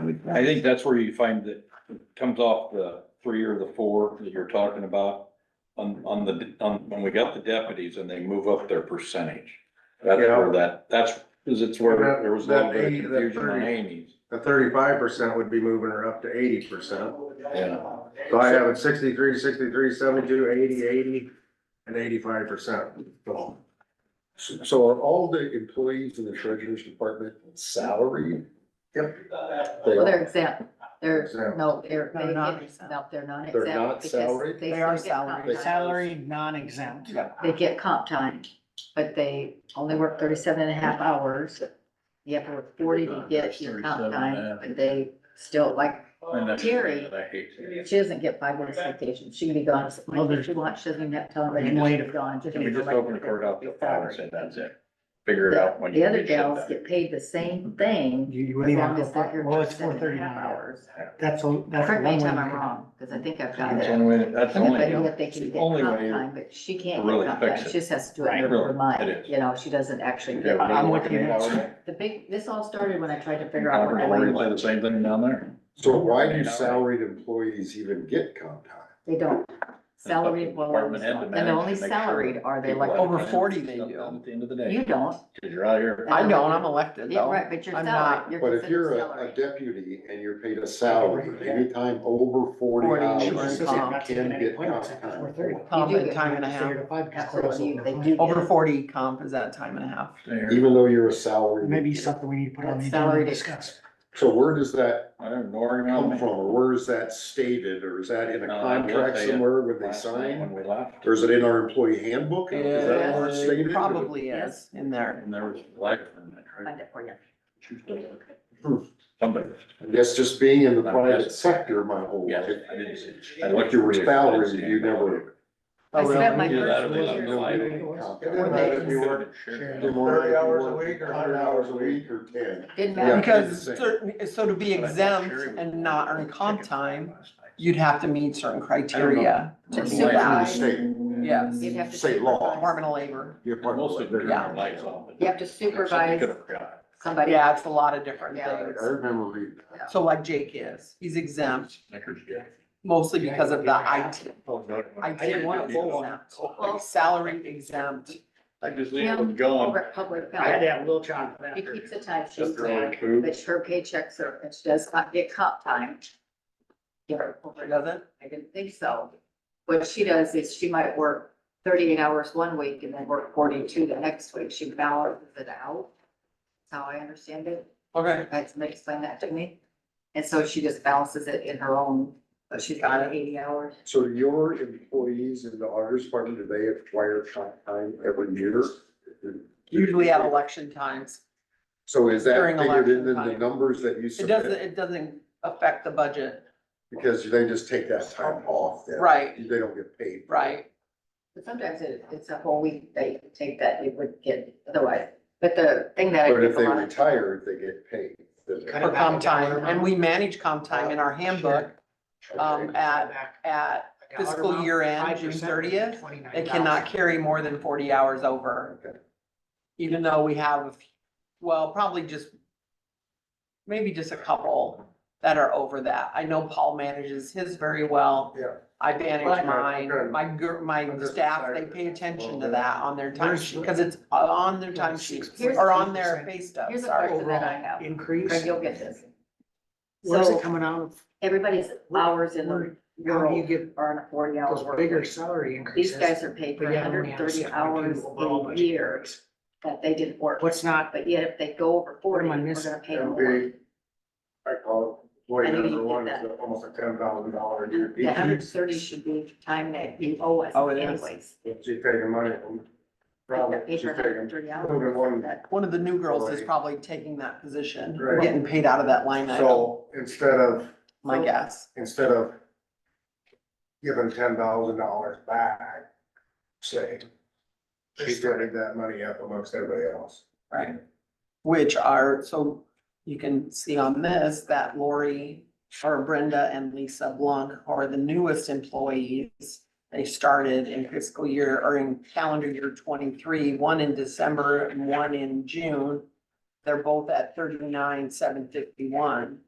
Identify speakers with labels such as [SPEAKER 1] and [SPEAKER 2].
[SPEAKER 1] I would,
[SPEAKER 2] I think that's where you find that it comes off the three or the four that you're talking about. On, on the, on, when we got the deputies and they move up their percentage. That's
[SPEAKER 3] Yeah.
[SPEAKER 2] where that, that's, cause it's where
[SPEAKER 3] That-
[SPEAKER 2] there was a little
[SPEAKER 3] that
[SPEAKER 2] bit
[SPEAKER 3] eighty-
[SPEAKER 2] of
[SPEAKER 3] that
[SPEAKER 2] confusion on
[SPEAKER 3] 30.
[SPEAKER 2] Amy's.
[SPEAKER 3] The thirty-five percent would be moving her up to eighty percent.
[SPEAKER 2] Yeah.
[SPEAKER 3] So I have it 63, 63, 72, 80, 80, and eighty-five percent.
[SPEAKER 4] So are all the employees in the treasurer's department salaried?
[SPEAKER 3] Yep.
[SPEAKER 4] They
[SPEAKER 5] Well,
[SPEAKER 4] are,
[SPEAKER 5] they're exempt, they're,
[SPEAKER 3] Exempt.
[SPEAKER 5] no, they're,
[SPEAKER 6] No,
[SPEAKER 5] they
[SPEAKER 6] not
[SPEAKER 5] get-
[SPEAKER 6] exempt.
[SPEAKER 5] no, they're not exempt.
[SPEAKER 4] They're not
[SPEAKER 5] because
[SPEAKER 4] salaried?
[SPEAKER 5] They
[SPEAKER 6] They are
[SPEAKER 5] still get comp
[SPEAKER 6] salary,
[SPEAKER 4] time.
[SPEAKER 5] time.
[SPEAKER 6] salary non-exempt.
[SPEAKER 5] They get comp time, but they only work 37 and a half hours. You have to work forty to get your comp
[SPEAKER 2] 37 and a
[SPEAKER 5] time,
[SPEAKER 2] half.
[SPEAKER 5] but they still, like,
[SPEAKER 2] And that's-
[SPEAKER 5] Terry.
[SPEAKER 2] I hate to-
[SPEAKER 5] she doesn't get five weeks vacation, she can be gone as
[SPEAKER 6] Well,
[SPEAKER 5] much as
[SPEAKER 6] there's-
[SPEAKER 5] she wants, she doesn't even have to tell
[SPEAKER 6] Can
[SPEAKER 5] anybody
[SPEAKER 6] we
[SPEAKER 5] when
[SPEAKER 6] just-
[SPEAKER 5] she's gone.
[SPEAKER 2] Can we just open the court up to five and say that's it? Figure it
[SPEAKER 5] The
[SPEAKER 2] out when you.
[SPEAKER 5] the other
[SPEAKER 2] get shit
[SPEAKER 5] gals
[SPEAKER 2] done.
[SPEAKER 5] get paid the same thing,
[SPEAKER 6] You, you
[SPEAKER 5] as
[SPEAKER 6] wouldn't even have
[SPEAKER 5] long
[SPEAKER 6] to
[SPEAKER 5] as they're here
[SPEAKER 6] apply. Well, it's
[SPEAKER 5] 37
[SPEAKER 6] four
[SPEAKER 5] and a
[SPEAKER 6] thirty-nine
[SPEAKER 5] half
[SPEAKER 6] hours. That's a, that's a
[SPEAKER 5] Correct me
[SPEAKER 6] one way.
[SPEAKER 5] anytime I'm
[SPEAKER 6] to-
[SPEAKER 5] wrong, because I think I've got
[SPEAKER 2] That's the
[SPEAKER 5] it.
[SPEAKER 2] only way, that's the
[SPEAKER 5] I
[SPEAKER 2] only,
[SPEAKER 5] know that they can get
[SPEAKER 2] only
[SPEAKER 5] comp
[SPEAKER 2] way to-
[SPEAKER 5] time, but she can't
[SPEAKER 2] really
[SPEAKER 5] get comp time,
[SPEAKER 2] fix it.
[SPEAKER 5] she just has to do it in
[SPEAKER 2] Right.
[SPEAKER 5] her
[SPEAKER 2] It
[SPEAKER 5] mind,
[SPEAKER 2] is.
[SPEAKER 5] you know, she doesn't actually
[SPEAKER 2] Yeah,
[SPEAKER 5] get.
[SPEAKER 2] we're
[SPEAKER 6] I'm
[SPEAKER 5] paid.
[SPEAKER 6] with you.
[SPEAKER 2] looking at it.
[SPEAKER 5] The big, this all started when I tried to figure out.
[SPEAKER 2] Robert,
[SPEAKER 5] what I
[SPEAKER 2] Lori,
[SPEAKER 5] wanted.
[SPEAKER 2] like the same thing down there.
[SPEAKER 4] so why do salaried employees even get comp time?
[SPEAKER 5] They don't, salaried, well,
[SPEAKER 2] Department head to
[SPEAKER 5] and
[SPEAKER 2] manage
[SPEAKER 5] the only
[SPEAKER 2] to make sure
[SPEAKER 5] salaried are they
[SPEAKER 2] people
[SPEAKER 5] like,
[SPEAKER 2] have
[SPEAKER 7] Over
[SPEAKER 2] time to
[SPEAKER 7] 40
[SPEAKER 2] get
[SPEAKER 7] they
[SPEAKER 2] stuff
[SPEAKER 7] do.
[SPEAKER 2] done At the end of the
[SPEAKER 5] you
[SPEAKER 2] day,
[SPEAKER 5] don't,
[SPEAKER 2] cause you're out here.
[SPEAKER 7] I don't, I'm elected
[SPEAKER 5] yeah,
[SPEAKER 7] though.
[SPEAKER 5] right, but you're
[SPEAKER 7] I'm not.
[SPEAKER 5] salaried, you're
[SPEAKER 4] But if you're
[SPEAKER 5] considered
[SPEAKER 4] a, a
[SPEAKER 5] salaried.
[SPEAKER 4] deputy and you're paid a salary, anytime over forty
[SPEAKER 7] 40
[SPEAKER 4] hours,
[SPEAKER 7] you
[SPEAKER 4] you
[SPEAKER 7] earn
[SPEAKER 6] It's just
[SPEAKER 7] comp.
[SPEAKER 6] not
[SPEAKER 4] can
[SPEAKER 6] taking any
[SPEAKER 4] get
[SPEAKER 6] point
[SPEAKER 4] comp
[SPEAKER 6] except for
[SPEAKER 4] time.
[SPEAKER 6] 4:30.
[SPEAKER 7] Comp
[SPEAKER 5] You do
[SPEAKER 7] at
[SPEAKER 5] get
[SPEAKER 7] time and a
[SPEAKER 6] Zero
[SPEAKER 7] half.
[SPEAKER 6] to five, because
[SPEAKER 5] Absolutely,
[SPEAKER 6] crossover.
[SPEAKER 5] they do.
[SPEAKER 7] Over
[SPEAKER 5] Yeah.
[SPEAKER 7] forty comp is at time and a half.
[SPEAKER 2] There.
[SPEAKER 4] Even though you're a salary.
[SPEAKER 6] Maybe something we need to put on the
[SPEAKER 5] That's
[SPEAKER 6] agenda
[SPEAKER 5] salary
[SPEAKER 6] and
[SPEAKER 5] to-
[SPEAKER 6] discuss.
[SPEAKER 4] So where does that
[SPEAKER 2] I don't know, Oregon,
[SPEAKER 4] come
[SPEAKER 2] I'm
[SPEAKER 4] from, or where is that stated, or is that in a
[SPEAKER 2] No,
[SPEAKER 7] Uh,
[SPEAKER 2] I will
[SPEAKER 4] contract
[SPEAKER 2] tell you,
[SPEAKER 4] somewhere when they
[SPEAKER 2] last night When
[SPEAKER 4] sign?
[SPEAKER 2] we left.
[SPEAKER 4] Or is it in our employee handbook? Is that where it's
[SPEAKER 7] Yeah,
[SPEAKER 4] stated?
[SPEAKER 7] Probably is in there.
[SPEAKER 2] And there was like.
[SPEAKER 5] Find it for you.
[SPEAKER 2] Somebody,
[SPEAKER 4] That's just being in the private sector my whole
[SPEAKER 2] yeah,
[SPEAKER 4] life.
[SPEAKER 2] I didn't see.
[SPEAKER 4] And like your salary, you never.
[SPEAKER 5] I spent my
[SPEAKER 2] Yeah, that'll
[SPEAKER 5] first
[SPEAKER 2] be
[SPEAKER 5] year,
[SPEAKER 2] lovely.
[SPEAKER 4] Didn't matter if you worked
[SPEAKER 3] Thirty hours a week or
[SPEAKER 4] Hundred hours a week or ten.
[SPEAKER 5] didn't
[SPEAKER 4] Yeah.
[SPEAKER 5] matter,
[SPEAKER 7] Because
[SPEAKER 4] same.
[SPEAKER 7] certain, so to be exempt and not earn comp time, you'd have to meet certain criteria.
[SPEAKER 5] But
[SPEAKER 2] Life.
[SPEAKER 5] supervised,
[SPEAKER 4] State,
[SPEAKER 7] Yes.
[SPEAKER 5] you'd have to.
[SPEAKER 4] State law.
[SPEAKER 5] supervise.
[SPEAKER 7] Department of Labor.
[SPEAKER 4] your part
[SPEAKER 2] Mostly
[SPEAKER 4] of it.
[SPEAKER 2] turn
[SPEAKER 7] Yeah.
[SPEAKER 2] your lights off.
[SPEAKER 5] You have to supervise Somebody.
[SPEAKER 7] Yeah, it's a lot of different
[SPEAKER 5] Yeah.
[SPEAKER 4] I
[SPEAKER 7] things.
[SPEAKER 4] remember we,
[SPEAKER 7] So like Jake is, he's exempt
[SPEAKER 2] Snickers, yeah.
[SPEAKER 7] mostly because of the IT. I
[SPEAKER 2] didn't
[SPEAKER 7] didn't want to
[SPEAKER 2] do
[SPEAKER 7] pull
[SPEAKER 2] that.
[SPEAKER 7] exempt, like salary exempt.
[SPEAKER 2] I just leave
[SPEAKER 5] Kim
[SPEAKER 2] it going.
[SPEAKER 5] over at Public
[SPEAKER 6] I had to
[SPEAKER 5] Health,
[SPEAKER 6] have Will John for that.
[SPEAKER 5] she keeps a time sheet,
[SPEAKER 2] Just around food.
[SPEAKER 5] but her paychecks are, and she does not get comp time. Yeah,
[SPEAKER 7] She doesn't?
[SPEAKER 5] I didn't think so. What she does is she might work thirty-eight hours one week and then work forty-two the next week. She balances it out. That's how I understand it.
[SPEAKER 7] Okay,
[SPEAKER 5] I had somebody explain that to me. And so she just balances it in her own, but she's got eighty hours.
[SPEAKER 4] so your employees in the auditor's department, do they acquire comp time every year?
[SPEAKER 7] usually at election times.
[SPEAKER 4] So is that
[SPEAKER 7] During
[SPEAKER 4] figured in
[SPEAKER 7] election
[SPEAKER 4] the
[SPEAKER 7] time.
[SPEAKER 4] numbers that you
[SPEAKER 7] It doesn't,
[SPEAKER 4] submit?
[SPEAKER 7] it doesn't affect the budget.
[SPEAKER 4] Because they just take that time off then.
[SPEAKER 7] Right,
[SPEAKER 4] They don't get paid.
[SPEAKER 7] right.
[SPEAKER 5] But sometimes it, it's a whole week that you could take that you would get otherwise. But the thing that I
[SPEAKER 4] But if
[SPEAKER 5] think a
[SPEAKER 4] they
[SPEAKER 5] lot of
[SPEAKER 4] retire, they get paid. doesn't it?
[SPEAKER 6] Kind
[SPEAKER 7] For
[SPEAKER 6] of
[SPEAKER 7] comp time, and we manage comp time in our handbook, um,
[SPEAKER 4] Okay.
[SPEAKER 7] at, at, fiscal year end, June 30th, they cannot carry more than forty hours over.
[SPEAKER 4] Okay.
[SPEAKER 7] Even though we have, well, probably just, maybe just a couple that are over that. I know Paul manages his very well.
[SPEAKER 3] Yeah.
[SPEAKER 7] I manage
[SPEAKER 3] Right.
[SPEAKER 7] mine, my gir, my
[SPEAKER 3] I'm just
[SPEAKER 7] staff, they
[SPEAKER 3] excited.
[SPEAKER 7] pay attention to that on their time
[SPEAKER 6] Where's
[SPEAKER 7] sheet,
[SPEAKER 6] the-
[SPEAKER 7] because it's on their time sheet
[SPEAKER 5] Here's-
[SPEAKER 7] or on their pay stub,
[SPEAKER 5] Here's a
[SPEAKER 7] sorry.
[SPEAKER 5] question that I have. Greg,
[SPEAKER 6] Increase,
[SPEAKER 5] you'll get this.
[SPEAKER 6] where's
[SPEAKER 5] So-
[SPEAKER 6] it coming out of?
[SPEAKER 5] Everybody's hours in the
[SPEAKER 6] Where- How do you
[SPEAKER 5] world
[SPEAKER 6] get
[SPEAKER 5] are on a forty hour
[SPEAKER 6] those
[SPEAKER 5] work
[SPEAKER 6] bigger
[SPEAKER 5] week.
[SPEAKER 6] salary
[SPEAKER 5] These
[SPEAKER 6] increases?
[SPEAKER 5] guys are paid for
[SPEAKER 6] But yet
[SPEAKER 5] hundred
[SPEAKER 6] only
[SPEAKER 5] and
[SPEAKER 6] have a
[SPEAKER 5] thirty
[SPEAKER 6] seven
[SPEAKER 5] hours
[SPEAKER 6] people overall
[SPEAKER 5] a
[SPEAKER 6] budget
[SPEAKER 5] year
[SPEAKER 6] increase.
[SPEAKER 5] that they didn't work.
[SPEAKER 6] What's not,
[SPEAKER 5] But yet if they go over
[SPEAKER 6] What
[SPEAKER 5] forty,
[SPEAKER 6] am I
[SPEAKER 5] we're
[SPEAKER 6] missing?
[SPEAKER 5] gonna pay them
[SPEAKER 3] That'd
[SPEAKER 5] more.
[SPEAKER 3] be, I call it, boy,
[SPEAKER 5] I know you
[SPEAKER 3] number
[SPEAKER 5] did
[SPEAKER 3] one
[SPEAKER 5] that.
[SPEAKER 3] is almost a ten thousand dollar a year
[SPEAKER 5] The hundred and
[SPEAKER 3] decrease.
[SPEAKER 5] thirty should be time that you owe us
[SPEAKER 7] Oh, it is.
[SPEAKER 5] anyways.
[SPEAKER 3] She's taking money from,
[SPEAKER 5] They
[SPEAKER 3] probably,
[SPEAKER 5] pay
[SPEAKER 3] she's
[SPEAKER 5] for
[SPEAKER 3] taking,
[SPEAKER 5] 130
[SPEAKER 3] moving
[SPEAKER 5] hours.
[SPEAKER 3] one,
[SPEAKER 5] That-
[SPEAKER 7] One of the new girls is
[SPEAKER 3] Right.
[SPEAKER 7] probably taking that position,
[SPEAKER 3] Right.
[SPEAKER 7] getting paid out of that line item,
[SPEAKER 3] so instead of,
[SPEAKER 7] my
[SPEAKER 5] So-
[SPEAKER 7] guess.
[SPEAKER 3] instead of giving ten thousand dollars back, say, she spreading that money up amongst everybody else.
[SPEAKER 7] Right. Which are, so you can see on this that Lori or Brenda and Lisa Blanc are the newest employees. They started in fiscal year or in calendar year twenty-three, one in December and one in June. They're both at thirty-nine, seven fifty-one.